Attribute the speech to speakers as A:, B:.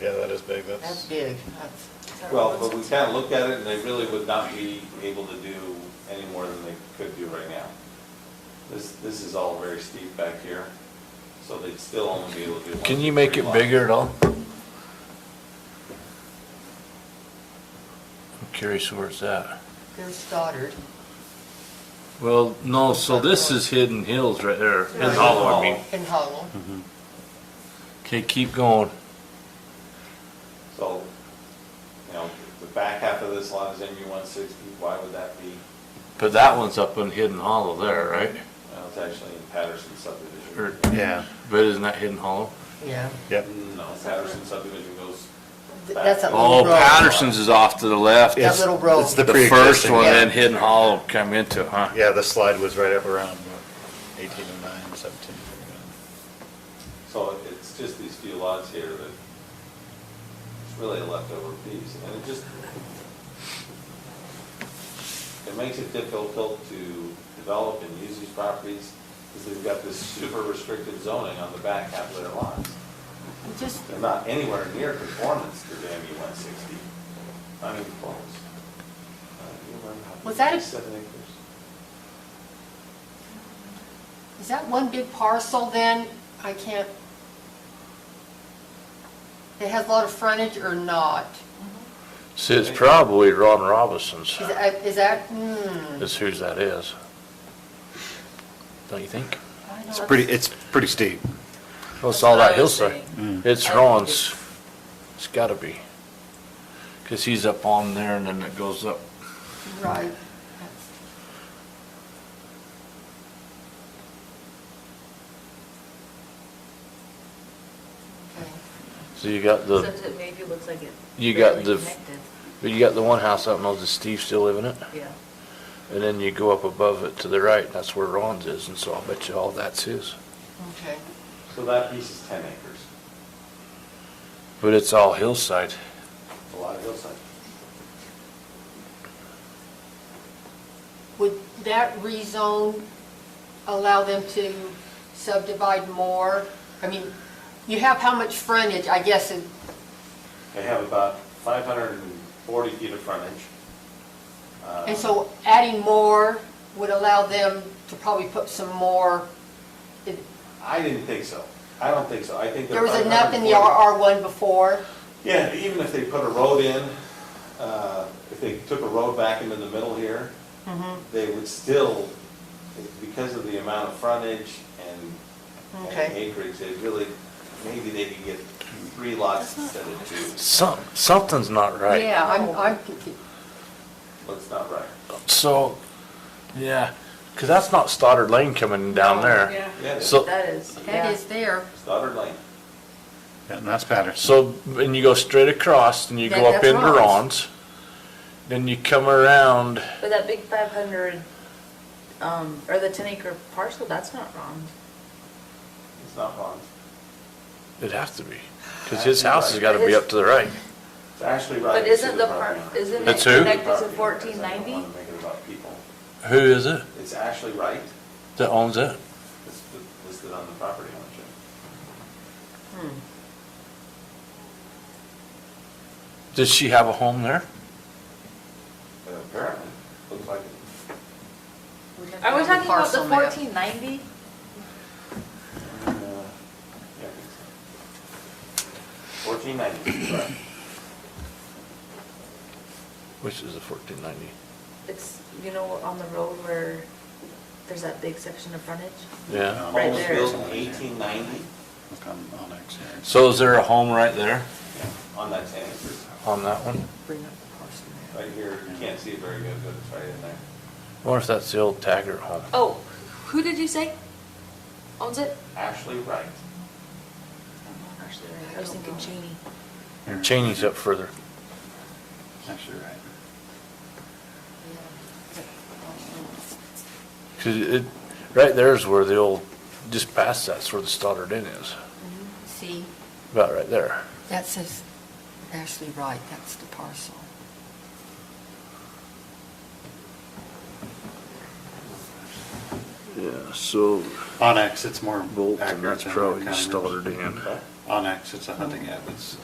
A: Yeah, that is big,
B: That's
A: that's,
B: big. That's-
C: Well, but we kind of looked at it, and they really would not be able to do any more than they could do right now. This, this is all very steep back here, so they'd still only be able to do one.
A: can
C: to
A: you make
C: three
A: it
C: lots.
A: bigger at all? I'm curious where it's at.
B: There's Stoddard.
A: Well, no, so this is Hidden Hills right there, Hidden
B: Right.
A: Hollow, I mean.
B: And Hollow.
A: Okay, keep going.
C: So, you know, the back half of this lot is MU one sixty, why would that be?
A: But that one's up in Hidden Hollow there, right?
C: Well, it's actually in Patterson
A: Or-
C: subdivision.
D: Yeah.
A: But isn't that Hidden Hollow?
B: Yeah.
D: Yep.
C: No, Patterson subdivision goes
B: Th-
C: back.
B: that's a
A: Oh,
B: little road.
A: Patterson's is off to the left.
B: That
D: It's-
B: little road.
D: It's the
A: The first
D: pre-existing,
A: one,
B: yeah.
A: then Hidden Hollow come into, huh?
D: Yeah, the slide was right up around what, 1809, 17.
C: So it's just these few lots here that, it's really a leftover piece, and it just, it makes it difficult to develop and use these properties, because they've got this super restricted zoning on the back half of their lots.
B: Just,
C: They're not anywhere near conformance to the MU one sixty, not even close. Uh, you remember how
B: Was
C: big
B: that a-
C: these Seven acres.
B: is that one big parcel then? I can't. It has a lot of frontage or not?
A: See, it's probably Ron Robinson's,
B: Is that, is that, hmm.
A: is whose that is. Don't you
B: I
A: think?
B: know
D: It's
B: that's-
D: pretty, it's pretty steep.
A: Well, it's all that
E: That's what I was
A: hillside.
D: Mm.
A: It's
E: I think
A: Ron's. It's gotta be. Cause he's up on there and then it goes up.
B: Right. That's- Okay.
A: So you got the,
E: Except it maybe looks like it.
A: You got
E: barely
A: the-
E: connected.
A: but you got the one house up, knows, does Steve still live in it?
E: Yeah.
A: And then you go up above it to the right, and that's where Ron's is, and so I bet you all that's his.
B: Okay,
C: So that piece is ten acres,
A: But it's all hillside.
C: a lot of hillside.
B: would that rezone allow them to subdivide more? I mean, you have how much frontage, I guess, in-
C: They have about 540 feet of frontage. Uh,
B: and so adding more would allow them to probably put some more. It-
C: I didn't think so. I don't think so. I think.
B: There
C: they're
B: was enough in the
C: 540
B: RR1 before,
C: Yeah, even if they put a road in, uh, if they took a road back into the middle here,
B: Mm-hmm.
C: they would still, because of the amount of frontage and- and
B: Okay.
C: acreage, they really, maybe they could get three lots instead of two.
A: Some, something's not right.
B: Oh. yeah, I'm, I'm, confu-
C: That's not right.
A: So, yeah, because that's not Stoddard Lane coming down there.
E: Yeah.
C: Yeah,
A: So-
E: That is,
B: that
E: yeah.
B: is there.
C: Stoddard Lane.
D: Yeah, And that's Patterson.
A: So, and you go straight across, and you go
B: That-
A: up
B: that's
A: into
B: Ron's.
A: Ron's. Then you come around,
E: But that big five hundred, um, or the ten acre parcel, that's not wrong.
C: It's not wrong.
A: it'd have to be, because his house has got to be up to the right.
C: It's actually right.
E: But isn't the
C: part?
E: part, isn't it
A: That's who?
E: connected to fourteen ninety?
A: Who is it
C: It's Ashley Wright,
A: that owns it?
C: it's listed on the property ownership.
B: Hmm.
A: Does she have a home there?
C: But apparently, looks like it.
E: Are we talking about the
B: Parcel map.
E: fourteen ninety?
C: uh, yeah, Fourteen ninety, right.
A: Which is a fourteen ninety.
E: It's, you know, on the road where there's that big section of frontage?
A: Yeah.
E: Right
C: Home was
E: there.
C: built in eighteen ninety
D: Look on Onyx here.
A: So is there a home right there
C: on that ten acres.
A: on that one?
B: Bring up the parcel map.
C: Right here, you can't see it very good, but it's right in there.
A: I wonder if that's the old Taggart home.
E: Oh, who did you say owns it?
C: Ashley Wright.
E: I was thinking Cheney.
D: Here.
A: Cheney's up further.
D: Actually, right.
A: Cause it, right there's where the old, just past that's where the Stoddard Inn is,
B: Mm-hmm. See,
A: about right there.
B: that says Ashley Wright, that's the parcel.
A: Yeah, so
D: Onyx, it's more accurate.
A: Bolton, that's
D: than
A: probably
D: County Road.
A: Stoddard Inn.
C: Okay.
D: Onyx, it's a hunting app, it's